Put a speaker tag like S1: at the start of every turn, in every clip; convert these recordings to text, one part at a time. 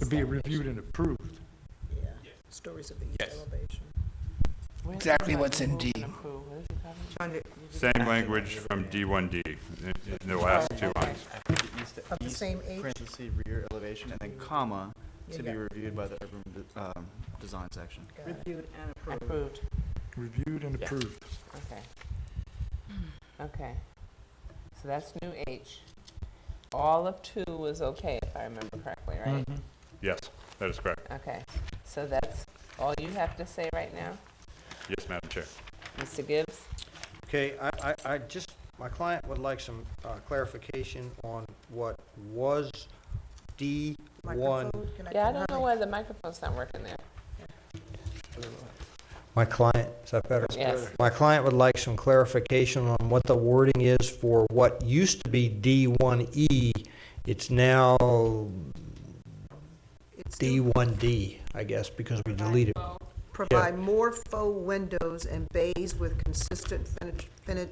S1: to be reviewed and approved.
S2: Yeah, stories of the east
S3: Yes.
S2: elevation.
S4: Exactly what's in D.
S5: Same language from D1D, in- in the last two lines.
S6: east,
S2: Of the
S6: east
S2: same age?
S6: parentheses, rear elevation, and then comma, to
S2: Yeah.
S6: be reviewed by the urban, de- um, design section.
S7: Reviewed and approved. Approved,
S1: Reviewed and
S6: Yeah.
S1: approved.
S7: okay. Okay. So that's new H. All of two was okay, if I remember correctly, right?
S1: Mm-hmm.
S5: Yes, that is correct.
S7: Okay, so that's all you have to say right now,
S5: Yes, Madam Chair.
S7: Mr. Gibbs?
S8: Okay, I, I, I just, my client would like some uh, clarification on what was D one.
S2: Microphone, can
S7: Yeah, I
S2: turn
S7: don't know
S2: on?
S7: why the microphone's not working there.
S8: My client, is that better?
S7: Yes.
S8: My client would like some clarification on what the wording is for what used to be D one E. It's now
S2: It's to
S8: D one D, I guess, because we deleted.
S2: Provide more faux windows and bays with consistent fini- fini-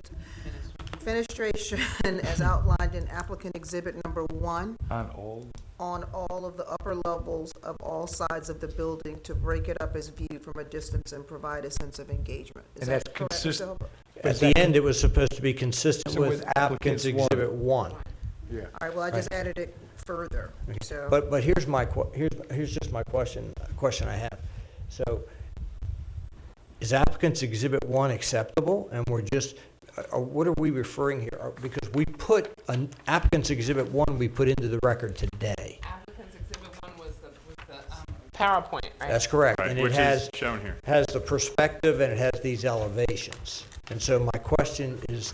S2: fenestration as outlined in applicant exhibit number one
S1: On all.
S2: on all of the upper levels of all sides of the building to break it up as viewed from a distance and provide a sense of engagement. Is
S1: And
S2: that
S1: that's
S2: correct, Mr.
S1: consist-
S2: Hilbert?
S8: At the end, it was supposed to be consistent
S1: So
S8: with
S1: with
S8: applicant's
S1: applicant's one.
S8: exhibit one.
S1: Yeah.
S2: All right, well, I just added it further, so.
S8: But, but here's my, que- here's, here's just my question, question I have. So is applicant's exhibit one acceptable? And we're just, uh, uh, what are we referring here? Uh, Because we put, an applicant's exhibit one, we put into the record today.
S7: Applicant's exhibit one was the, was the, um. PowerPoint, right?
S8: That's correct.
S5: Right,
S8: And it
S5: which
S8: has,
S5: is shown here.
S8: has the perspective and it has these elevations. And so my question is,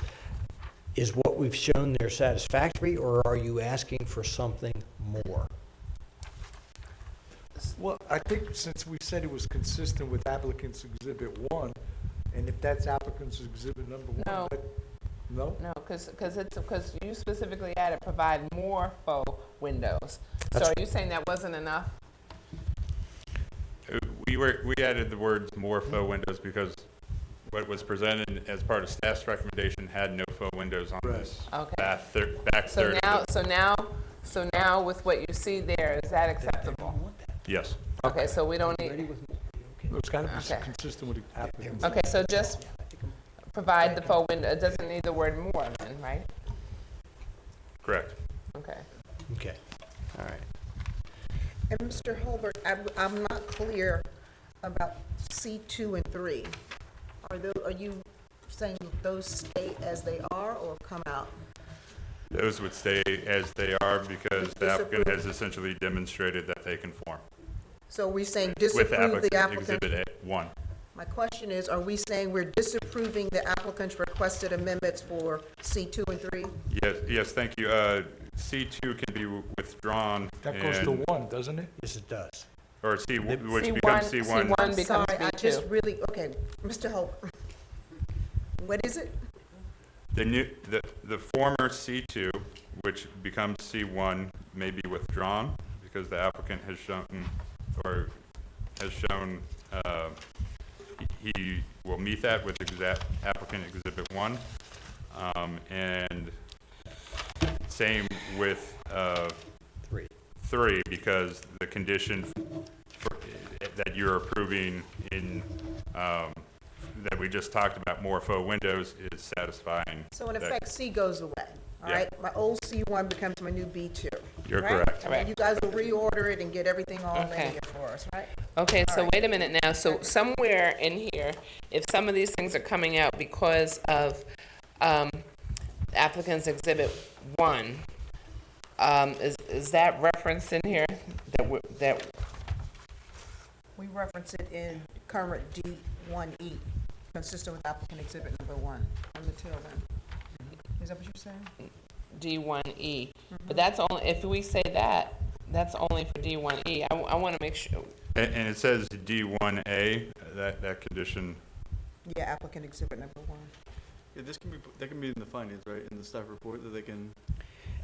S8: is what we've shown there satisfactory or are you asking for something more?
S1: Well, I think since we said it was consistent with applicant's exhibit one, and if that's applicant's exhibit number one,
S7: No.
S1: that- no?
S7: No, because, because it's, because you specifically added provide more faux windows. So are you saying that wasn't enough?
S5: Uh, We were, we added the words more faux windows because what was presented as part of staff's recommendation had no faux windows on
S1: Right.
S5: this
S7: Okay.
S5: back thir- back
S7: So
S5: third. of
S7: now,
S5: it.
S7: so now, so now with what you see there, is that acceptable?
S5: Yes,
S7: Okay, so we don't need,
S1: It's got to be
S7: Okay.
S1: consistent with the applicant's.
S7: okay, so just provide the faux window, it doesn't need the word more then, right?
S5: correct.
S7: Okay.
S8: Okay, all right.
S2: And Mr. Holbert, I'm, I'm not clear about C two and three. Are tho, are you saying those stay as they are or come out?
S5: Those would stay as they are because the applicant has essentially demonstrated that they conform
S2: So we are saying
S5: with the
S2: disapprove the
S5: applicant
S2: applicant?
S5: exhibit A- one.
S2: My question is, are we saying we're disapproving the applicant's requested amendments for C two and three?
S5: Yes, yes, thank you. Uh, C2 can be w- withdrawn
S1: That goes to
S5: and,
S1: one, doesn't it?
S8: Yes, it does.
S5: or C, which
S7: C1
S5: becomes
S7: C1
S5: C1.
S7: becomes
S2: Sorry, I just
S7: B2.
S2: really, okay, Mr. Holbert. What is it?
S5: The new, the, the former C2, which becomes C1, may be withdrawn because the applicant has shown, or has shown, uh, he he will meet that with exact applicant exhibit one. Um, and same with, uh,
S8: Three.
S5: three, because the condition for- that you're approving in, um, that we just talked about, more faux windows, is satisfying.
S2: So in
S5: that-
S2: effect, C goes away, all
S5: Yeah.
S2: right? My old C one becomes my new B two.
S5: You're correct.
S2: I mean, you guys will reorder it and get everything all in
S7: Okay.
S2: here for us, right?
S7: Okay, so wait a minute now, so somewhere in here, if some of these things are coming out because of um, applicant's exhibit one, um, is, is that referenced in here? That, we- that,
S2: We reference it in current D1E, consistent with applicant exhibit number one on the tail end. Is that what you're saying?
S7: D1E. E. But that's only, if we say that, that's only for D1E. I, want to make sure,
S5: A- And it says D1A, that, that condition,
S2: Yeah, applicant exhibit number one.
S6: Yeah, this can be, that can be in the findings, right, in the staff report, that they can.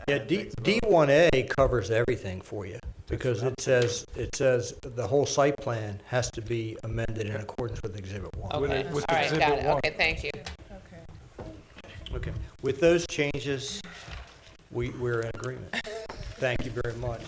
S8: Yeah,
S6: add
S8: D,
S6: things about-
S8: D1A covers everything for you, because it says, it says the whole site plan has to be amended in accordance with Exhibit 1.
S1: With-
S7: okay, all
S1: with
S7: right,
S1: exhibit
S7: got it,
S1: one.
S7: okay, thank you.
S2: Okay.
S8: Okay. With those changes, we, we're in agreement. Thank you very much.